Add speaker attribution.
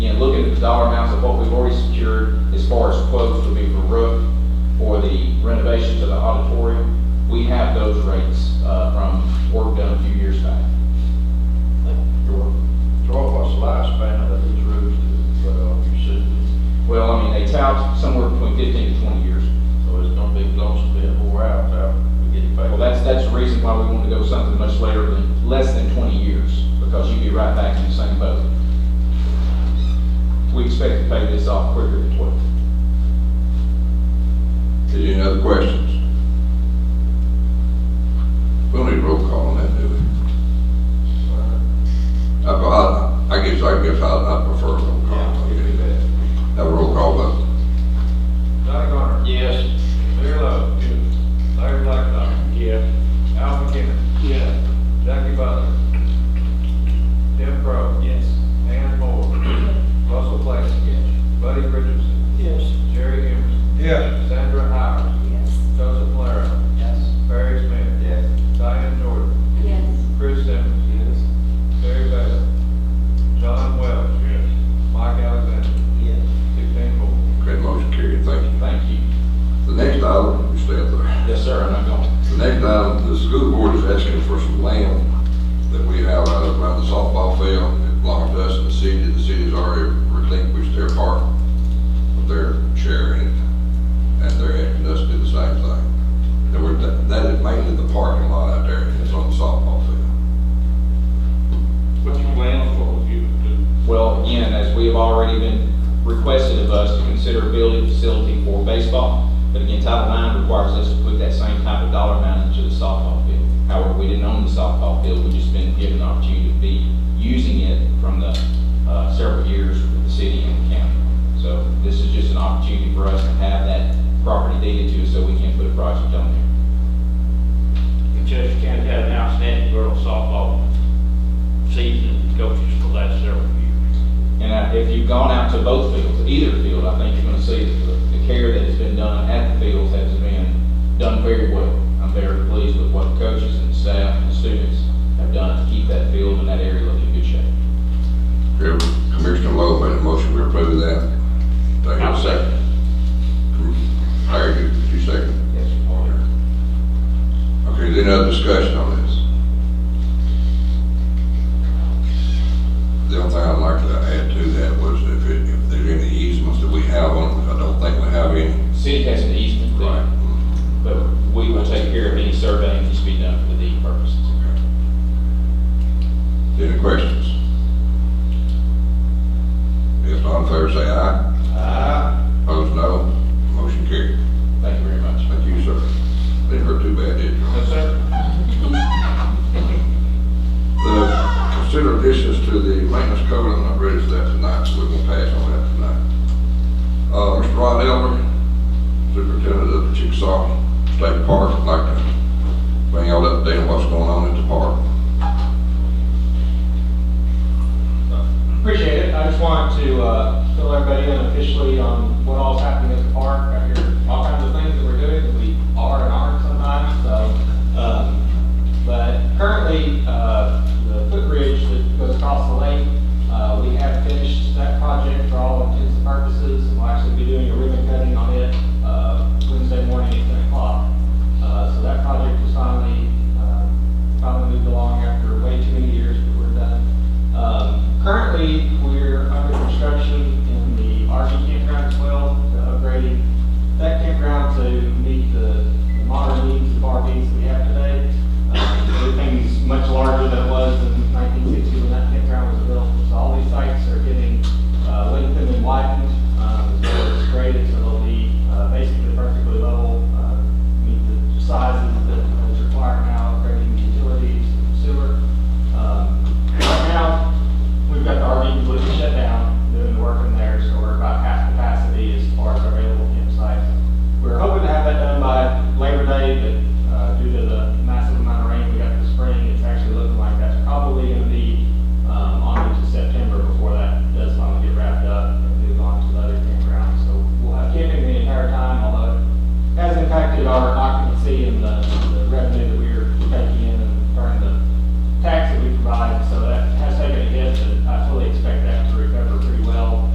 Speaker 1: dollar amounts of what we've already secured as far as quotes would be for roof, for the renovations of the auditorium. We have those rates, uh, from work done a few years back.
Speaker 2: Troy, Troy, what's the lifespan of these roofs that, uh, you said,
Speaker 1: Well, I mean, they tout somewhere between fifteen to twenty years.
Speaker 2: so it's gonna be close to being wore out, uh, we get it back?
Speaker 1: Well, that's, that's the reason why we want to go something much later than, less than twenty years, because you'd be right back in the same boat. We expect to pay this off quicker than twelve.
Speaker 3: Any other questions? We don't need roll call on that, do we? I, I, I guess, I guess I, I prefer roll call. Okay. Have a roll call vote.
Speaker 4: Johnny Garner.
Speaker 2: Yes.
Speaker 4: Larry Love. Larry Blackstock.
Speaker 2: Yeah.
Speaker 4: Al McKinnon.
Speaker 2: Yeah.
Speaker 4: Jackie Butler. Tim Crow.
Speaker 2: Yes.
Speaker 4: Ann Moore. Russell Place.
Speaker 2: Yes.
Speaker 4: Buddy Richardson.
Speaker 2: Yes.
Speaker 4: Jerry Emerson.
Speaker 2: Yeah.
Speaker 4: Sandra Howard.
Speaker 5: Yes.
Speaker 4: Joseph Lara.
Speaker 2: Yes.
Speaker 4: Barry Smith.
Speaker 2: Yes.
Speaker 4: Diane Jordan.
Speaker 5: Yes.
Speaker 4: Chris Simmons.
Speaker 2: Yes.
Speaker 4: Terry Bell. John Wells.
Speaker 2: Yes.
Speaker 4: Mike Alexander.
Speaker 2: Yes.
Speaker 4: Sixteen more.
Speaker 3: Okay, motion carried, thank you.
Speaker 1: Thank you.
Speaker 3: The next item, you stay up there.
Speaker 1: Yes, sir, and I'm going.
Speaker 3: The next item, the school board is asking for some land that we have out around the softball field. It belongs to us and the city. The city's already relinquished their part of their share in it. And they're asking us to do the same thing. Now, we're, that that is mainly the parking lot out there. It's on the softball field.
Speaker 6: What's your plan for you to,
Speaker 1: Well, again, as we have already been requested of us to consider a building facility for baseball, but again, Title IX requires us to put that same type of dollar amount into the softball field. However, we didn't own the softball field, we just been given the opportunity to be using it from the, uh, several years with the city and the county. So this is just an opportunity for us to have that property deeded to us so we can put a project on there.
Speaker 6: Chester County had an outstanding girls softball season, coaches for the last several years.
Speaker 1: And I- if you've gone out to both fields, either field, I think you're gonna see that the, the care that has been done at the fields has been done very well. I'm very pleased with what the coaches and the staff and the students have done to keep that field and that area looking in good shape.
Speaker 3: Okay, Commissioner Lowe made a motion, we approve that. Do I hear a second? Larry, you, you second?
Speaker 1: Yes,
Speaker 3: Okay, is there any other discussion on this? The only thing I'd like to add to that was if it, if there's any easements that we have on, I don't think we have any.
Speaker 1: City has an easement there, but we will take care of any surveying that needs to be done for the deed purposes.
Speaker 3: Any questions? If not, in favor say aye. Opposed, no. Motion carried.
Speaker 1: Thank you very much.
Speaker 3: Thank you, sir. Didn't hurt too bad, did you?
Speaker 4: Yes, sir.
Speaker 3: The consider additions to the maintenance code, I'm not ready for that tonight, so we won't pass on that tonight. Uh, Mr. Ron Elmer, Superintendent of the Chickasaw State Park, I'd like to bring y'all up to date on what's going on at the park.
Speaker 7: Appreciate it. I just wanted to uh, fill everybody in officially on what all's happening at the park. I hear all kinds of things that we're doing that we are and aren't sometimes, so. um, But currently, uh, the footbridge that goes across the lake, uh, we have finished that project for all intents and purposes. We'll actually be doing a ribbon cutting on it uh, Wednesday morning at 10 o'clock. Uh, So that project was finally, um, finally moved along after way too many years, but we're done. Um, Currently, we're under construction